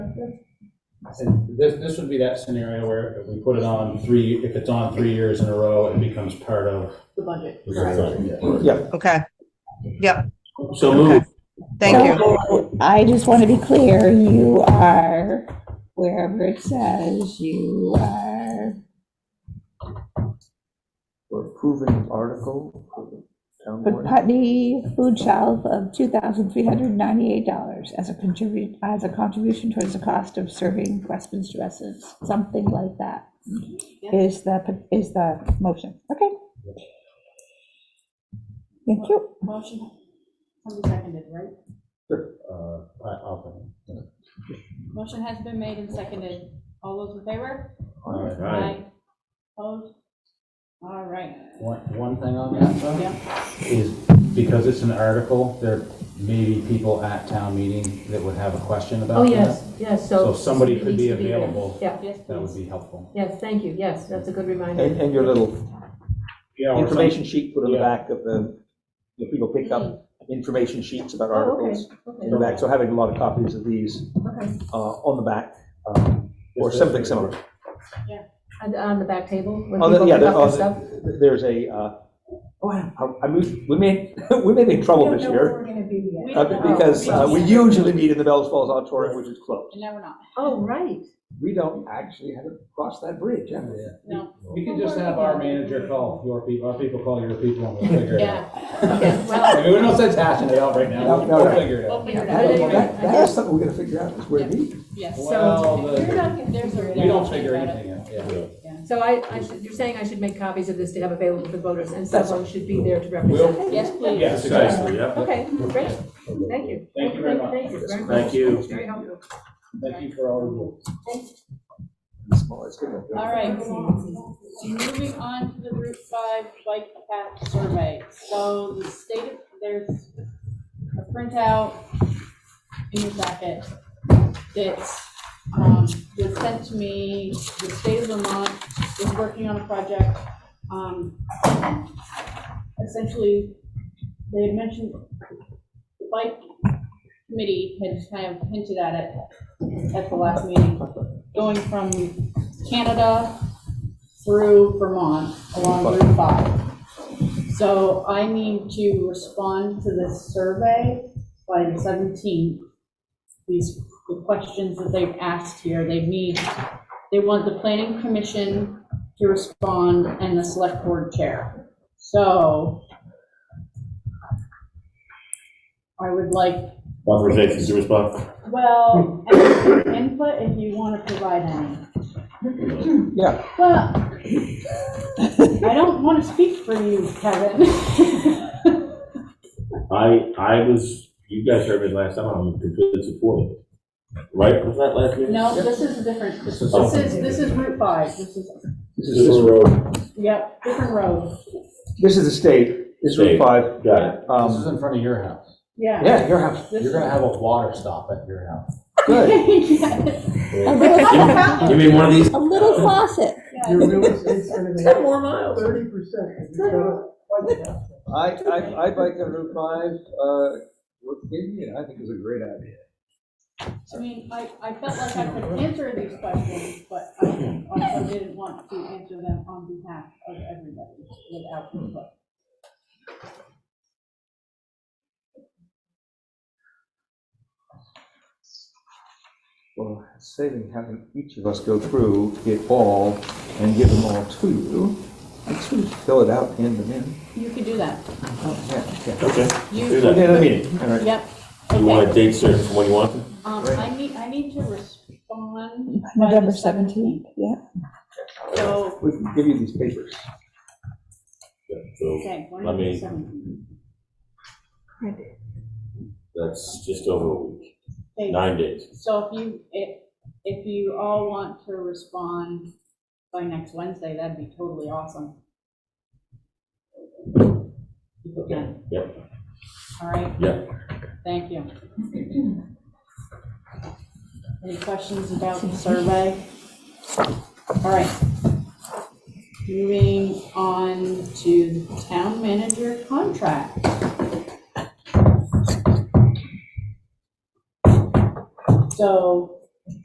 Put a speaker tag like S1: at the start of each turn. S1: And this, this would be that scenario where if we put it on three, if it's on three years in a row, it becomes part of.
S2: the budget.
S3: Is
S2: correct?
S3: that right?
S4: Yeah.
S5: Okay,
S1: So move.
S5: thank you.
S6: I just want to be clear, you are, wherever it says, you are,
S4: We're approving an article for the town
S6: put
S4: board.
S6: Putney Food Shelf of $2,398 as a contribute, as a contribution towards the cost of serving Westminster residents, something like that,
S2: Yeah.
S6: is the, is the motion, okay? Thank you.
S2: Motion, somebody seconded, right?
S1: Uh, I, I'll.
S2: Motion has been made and seconded. All those in favor?
S1: All right.
S2: Opposed? All right.
S1: One, one thing on that though,
S2: Yeah.
S1: is because it's an article, there may be people at town meeting that would have a question about
S7: Oh,
S1: that.
S7: yes, yes, so.
S1: So somebody could be
S7: needs to there.
S1: available.
S7: Yeah,
S2: Yes,
S1: That would
S2: please.
S1: be helpful.
S7: yes, thank you, yes, that's a good reminder.
S4: And, and your little
S1: Yeah, or some-
S4: information sheet put on the
S1: Yeah.
S4: back of the, you know, people pick up information sheets about
S7: Oh, okay.
S4: articles
S7: Okay,
S4: in the back, so having a lot of copies of these
S7: okay.
S4: uh, on the back, um, or
S1: Yes,
S4: something
S1: yes.
S4: similar.
S7: And on the back table, when
S4: On the-
S7: people
S4: yeah,
S7: pick
S4: there-
S7: up their
S4: on
S7: stuff.
S4: the- There's a, uh, oh, I- I moved, we may, we may be in trouble this year,
S8: We're gonna do yet.
S2: We
S4: uh,
S2: don't
S7: Oh,
S2: know.
S4: because uh, we
S2: don't know.
S4: usually meet in the Bells Falls Auditorium, which is closed.
S2: And now we're not.
S7: Oh, right.
S4: We don't actually have crossed that bridge, have we?
S2: No.
S1: We could just have our manager call your people, our people call your people and we'll figure it
S2: Yeah.
S1: out.
S2: Okay,
S1: I
S2: well,
S1: mean, we don't sense hashing it out right now.
S4: No, no,
S1: We'll
S4: no.
S1: figure it out.
S2: we'll figure it
S7: Yeah,
S4: Well,
S2: out.
S4: That, that is something we're gonna figure out, is where it is.
S2: Yes.
S1: Well,
S2: We're
S1: the,
S2: not gonna- there's a-
S1: we don't figure anything out, yeah.
S7: So I, I should, you're saying I should make copies of this to have available for voters, and someone should be there to represent.
S1: We'll,
S2: Yes, please.
S1: yes, exactly.
S7: Okay, great, thank you.
S1: Thank you very much.
S7: Thank you very much.
S1: Thank you.
S7: Very helpful.
S1: Thank you for all the rules.
S4: Small, it's gonna-
S2: All right, moving on to the Route 5 bike path survey. So the state, there's a printout in your packet that's, um, that's sent to me. The state of Vermont is working on a project. um, Essentially, they had mentioned, the bike committee had kind of hinted at it at the last meeting, going from Canada through Vermont along Route 5. So I need to respond to this survey by the 17th. These, the questions that they've asked here, they need, they want the planning commission to respond and the select board chair. So I would like
S3: Authorization to respond? Hmm.
S2: well, and input if you want to provide any.
S4: Yeah.
S2: But I don't want to speak for you, Kevin.
S3: I, I was, you guys heard me last time, I'm completely supportive. Right, was that last meeting?
S2: No, this is a different, this is, this is Route 5, this is,
S4: This
S3: This is
S4: is,
S3: road,
S2: yep, different road.
S4: this is the state, this is Route
S3: State.
S4: Five.
S3: got it.
S1: This is
S4: Um,
S1: in front of your house.
S2: Yeah.
S4: yeah, your house,
S2: This
S1: You're
S2: is-
S1: gonna have a water stop at your house.
S4: good.
S2: Yeah,
S6: A little-
S3: You mean one of these?
S6: a little faucet.
S2: yeah.
S9: You realize it's gonna be
S7: Ten more miles.
S9: thirty percent.
S4: I, I, I bike on Route Five, uh, what gave me, it, I think is a great idea.
S2: I mean, I, I felt like I could answer these questions, but I also didn't want to answer them on behalf of everybody without input.
S4: Well, saving having each of us go through it all and give them all to you, and sort of fill it out, hand them in.
S2: You could do that.
S4: Oh, yeah, yeah.
S3: Okay, do
S2: You,
S4: Okay,
S3: that.
S4: another meeting, all right.
S2: yep.
S3: You
S2: okay.
S3: want a date certain for when you want? them?
S2: Um, I need, I need to respond. by the
S6: November 17th, yeah.
S2: So,
S4: We can give you these papers.
S3: Yeah, So
S2: okay,
S3: Let
S2: November
S3: me-
S2: seventeenth.
S3: that's just over a week,
S2: Okay,
S3: nine days.
S2: so if you, if, if you all want to respond by next Wednesday, that'd be totally awesome. If you can.
S3: Yep,
S2: All right,
S3: yep.
S2: thank you. Any questions about the survey? All right. Moving on to town manager contract. So